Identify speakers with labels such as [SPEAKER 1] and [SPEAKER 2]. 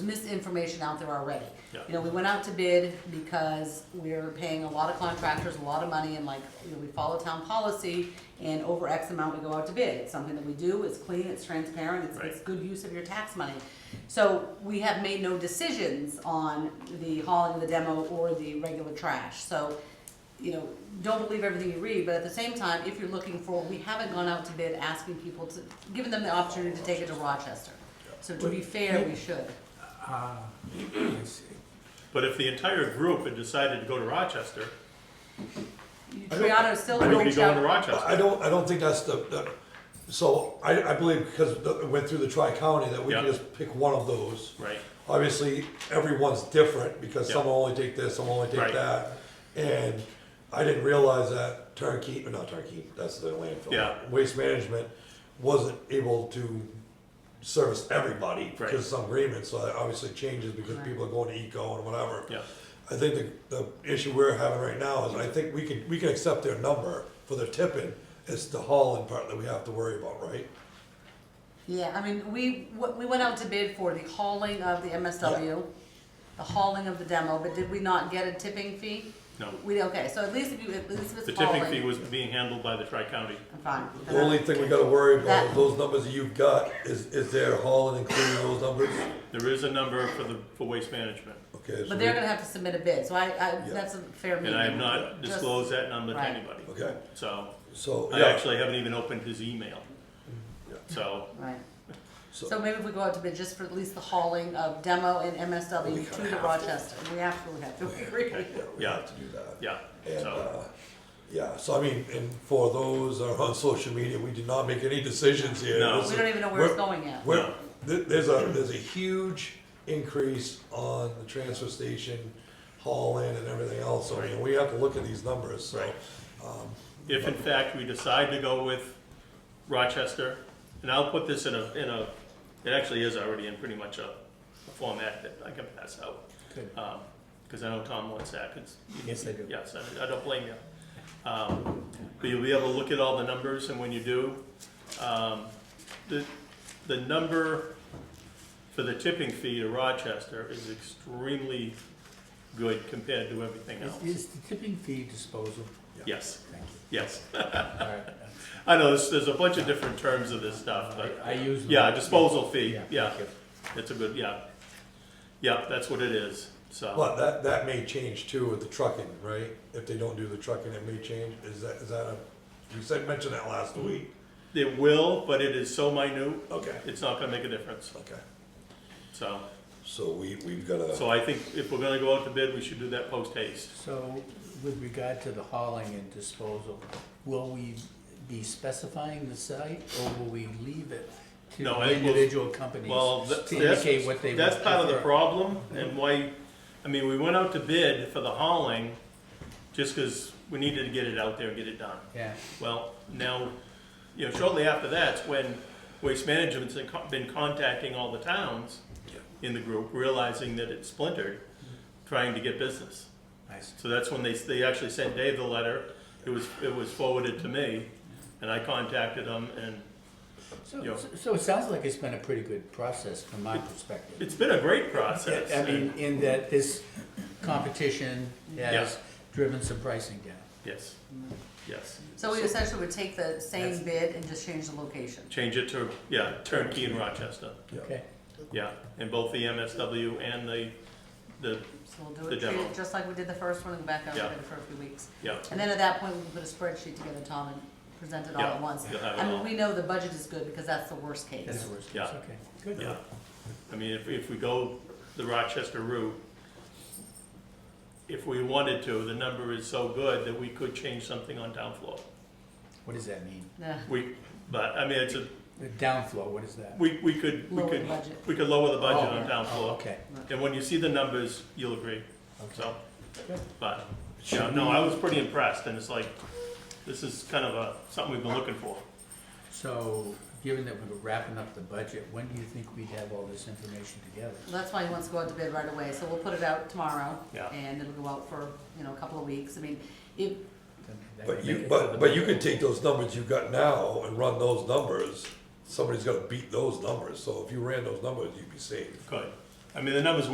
[SPEAKER 1] misinformation out there already.
[SPEAKER 2] Yeah.
[SPEAKER 1] You know, we went out to bid because we're paying a lot of contractors a lot of money and like, you know, we follow town policy and over X amount we go out to bid. It's something that we do, it's clean, it's transparent, it's, it's
[SPEAKER 2] Right.
[SPEAKER 1] good use of your tax money. So we have made no decisions on the hauling of the demo or the regular trash. So, you know, don't believe everything you read, but at the same time, if you're looking for, we haven't gone out to bid asking people to, giving them the opportunity to take it to Rochester. So to be fair, we should.
[SPEAKER 3] Ah, I see.
[SPEAKER 2] But if the entire group had decided to go to Rochester,
[SPEAKER 1] Triano still
[SPEAKER 2] we would be
[SPEAKER 1] reached
[SPEAKER 2] going to
[SPEAKER 1] out.
[SPEAKER 2] Rochester.
[SPEAKER 4] I don't, I don't think that's the, the, so I, I believe because it went through the tri-county that we can
[SPEAKER 2] Yeah.
[SPEAKER 4] just pick one of those.
[SPEAKER 2] Right.
[SPEAKER 4] Obviously, everyone's different because
[SPEAKER 2] Yeah.
[SPEAKER 4] some will only take this, some will only
[SPEAKER 2] Right.
[SPEAKER 4] take that. And I didn't realize that turnkey, not turnkey, that's the landfill.
[SPEAKER 2] Yeah.
[SPEAKER 4] Waste management wasn't able to service everybody because of some agreements, so that obviously changes because
[SPEAKER 1] Right.
[SPEAKER 4] people are going to eco and whatever.
[SPEAKER 2] Yeah.
[SPEAKER 4] I think the, the issue we're having right now is I think we can, we can accept their number for their tipping. It's the hauling part that we have to worry about, right?
[SPEAKER 1] Yeah, I mean, we, w- we went out to bid for the hauling of the MSW, the hauling of the demo, but did we not get a tipping fee?
[SPEAKER 2] No.
[SPEAKER 1] We, okay, so at least if you, at least if
[SPEAKER 2] The
[SPEAKER 1] it's
[SPEAKER 2] tipping fee
[SPEAKER 1] hauling,
[SPEAKER 2] was being handled by the tri-county.
[SPEAKER 1] fine.
[SPEAKER 4] The only thing we gotta worry about,
[SPEAKER 1] That-
[SPEAKER 4] is those numbers that you've got, is, is their hauling including those numbers?
[SPEAKER 2] There is a number for the, for waste management.
[SPEAKER 4] Okay, so
[SPEAKER 1] But they're
[SPEAKER 4] we,
[SPEAKER 1] gonna have to submit a bid, so I, I, that's a fair meeting.
[SPEAKER 2] And I have not
[SPEAKER 1] Just-
[SPEAKER 2] disclosed that number to
[SPEAKER 1] Right.
[SPEAKER 2] anybody.
[SPEAKER 4] okay,
[SPEAKER 2] So
[SPEAKER 4] so,
[SPEAKER 2] I
[SPEAKER 4] yeah,
[SPEAKER 2] actually haven't even opened his email.
[SPEAKER 4] Yeah.
[SPEAKER 2] So,
[SPEAKER 1] Right.
[SPEAKER 4] So-
[SPEAKER 1] So maybe if we go out to bid just for at least the hauling of demo and
[SPEAKER 4] We
[SPEAKER 1] MSW
[SPEAKER 4] kinda
[SPEAKER 1] to the
[SPEAKER 4] have to.
[SPEAKER 1] Rochester, we absolutely have to, we really.
[SPEAKER 4] yeah, we
[SPEAKER 2] Yeah.
[SPEAKER 4] have to do that.
[SPEAKER 2] yeah,
[SPEAKER 4] And,
[SPEAKER 2] so,
[SPEAKER 4] uh, yeah, so I mean, and for those that are on social media, we did not make any decisions here.
[SPEAKER 2] No.
[SPEAKER 4] This
[SPEAKER 1] We
[SPEAKER 4] is-
[SPEAKER 1] don't even know where it's
[SPEAKER 4] we're-
[SPEAKER 1] going yet.
[SPEAKER 4] Well, th- there's a, there's a huge increase on the transfer station haul-in and everything else, so I mean, we have to look at these numbers, so.
[SPEAKER 2] Right. if in fact we decide to go with Rochester, and I'll put this in a, in a, it actually is already in pretty much a a format that I can pass out.
[SPEAKER 3] Good.
[SPEAKER 2] Because I know Tom wants that, 'cause
[SPEAKER 3] Yes, I do.
[SPEAKER 2] Yes, I, I don't blame you. Um, but you'll be able to look at all the numbers, and when you do, um, the, the number for the tipping fee to Rochester is extremely good compared to everything
[SPEAKER 3] Is,
[SPEAKER 2] else.
[SPEAKER 3] is the tipping fee disposal?
[SPEAKER 2] Yes,
[SPEAKER 3] Thank you.
[SPEAKER 2] yes.
[SPEAKER 3] All right.
[SPEAKER 2] I know, there's, there's a bunch of different terms of this stuff, but,
[SPEAKER 3] I I use.
[SPEAKER 2] yeah, disposal fee,
[SPEAKER 3] thank
[SPEAKER 2] yeah,
[SPEAKER 3] you.
[SPEAKER 2] it's a good, yeah. Yeah, that's what it is, so,
[SPEAKER 4] But that, that may change too with the trucking, right? If they don't do the trucking, it may change, is that, is that a, you said, mentioned that last week.
[SPEAKER 2] it will, but it is so minute,
[SPEAKER 4] Okay.
[SPEAKER 2] it's not gonna make a difference,
[SPEAKER 4] Okay,
[SPEAKER 2] so.
[SPEAKER 4] so we, we've gotta,
[SPEAKER 2] So I think if we're gonna go out to bid, we should do that post haste.
[SPEAKER 3] So with regard to the hauling and disposal, will we be specifying the site or will we leave it to
[SPEAKER 2] No, I
[SPEAKER 3] the
[SPEAKER 2] think we'll-
[SPEAKER 3] individual companies
[SPEAKER 2] Well, tha-
[SPEAKER 3] to
[SPEAKER 2] that's,
[SPEAKER 3] indicate what they?
[SPEAKER 2] that's
[SPEAKER 3] would
[SPEAKER 2] part of the
[SPEAKER 3] prefer? Mm-hmm.
[SPEAKER 2] problem and why, I mean, we went out to bid for the hauling just because we needed to get it out there and get it done.
[SPEAKER 3] Yeah,
[SPEAKER 2] Well, now, you know, shortly after that's when Waste Management's been con- been contacting all the towns in the group, realizing that it's splintered,
[SPEAKER 3] Mm-hmm.
[SPEAKER 2] trying to get business.
[SPEAKER 3] nice.
[SPEAKER 2] So that's when they, they actually sent Dave the letter. It was, it was forwarded to me and I contacted them and
[SPEAKER 3] So,
[SPEAKER 2] Yeah.
[SPEAKER 3] so it sounds like it's been a pretty good process from my perspective.
[SPEAKER 2] it's been a great process.
[SPEAKER 3] I mean, in that this competition has
[SPEAKER 2] Yeah.
[SPEAKER 3] driven some pricing down.
[SPEAKER 2] Yes, yes.
[SPEAKER 1] So we essentially would take the same
[SPEAKER 3] That's-
[SPEAKER 1] bid and just change the location.
[SPEAKER 2] Change it to, yeah, turnkey in Rochester,
[SPEAKER 4] Yeah.
[SPEAKER 3] Okay,
[SPEAKER 2] yeah. And both the MSW and the, the,
[SPEAKER 1] So we'll do
[SPEAKER 2] The
[SPEAKER 1] it, treat
[SPEAKER 2] demo.
[SPEAKER 1] it just like we did the first one and go back over
[SPEAKER 2] Yeah.
[SPEAKER 1] it for a few weeks.
[SPEAKER 2] yeah,
[SPEAKER 1] And then at that point, we can put a spreadsheet together, Tom, and present it all
[SPEAKER 2] Yeah,
[SPEAKER 1] at once.
[SPEAKER 2] you'll have it
[SPEAKER 1] I mean,
[SPEAKER 2] all.
[SPEAKER 1] we know the budget is good because that's the worst case.
[SPEAKER 3] that's the worst case,
[SPEAKER 2] Yeah.
[SPEAKER 3] okay, good.
[SPEAKER 2] yeah. I mean, if, if we go the Rochester route, if we wanted to, the number is so good that we could change something on downflow.
[SPEAKER 3] What does that mean?
[SPEAKER 1] Yeah.
[SPEAKER 2] We, but, I mean, it's a,
[SPEAKER 3] The downflow, what is that?
[SPEAKER 2] we, we could, we
[SPEAKER 1] Lower the
[SPEAKER 2] could,
[SPEAKER 1] budget.
[SPEAKER 2] we could lower the budget
[SPEAKER 3] Oh,
[SPEAKER 2] on
[SPEAKER 3] Oh,
[SPEAKER 2] downflow.
[SPEAKER 3] okay,
[SPEAKER 2] And when you see the numbers, you'll agree,
[SPEAKER 3] okay.
[SPEAKER 2] so,
[SPEAKER 3] Good.
[SPEAKER 2] but, yeah, no, I was pretty impressed and it's like, this is kind of a, something we've been looking for.
[SPEAKER 3] So, given that we're wrapping up the budget, when do you think we'd have all this information together?
[SPEAKER 1] That's why he wants to go out to bid right away, so we'll put it out tomorrow.
[SPEAKER 2] Yeah.
[SPEAKER 1] And it'll go out for, you know, a couple of weeks. I mean, if,
[SPEAKER 3] Then that
[SPEAKER 4] but
[SPEAKER 3] can make
[SPEAKER 4] you,
[SPEAKER 3] it to the
[SPEAKER 4] but, but you
[SPEAKER 3] budget.
[SPEAKER 4] can take those numbers you've got now and run those numbers. Somebody's gotta beat those numbers, so if you ran those numbers, you'd be safe.
[SPEAKER 2] Good, I mean, the numbers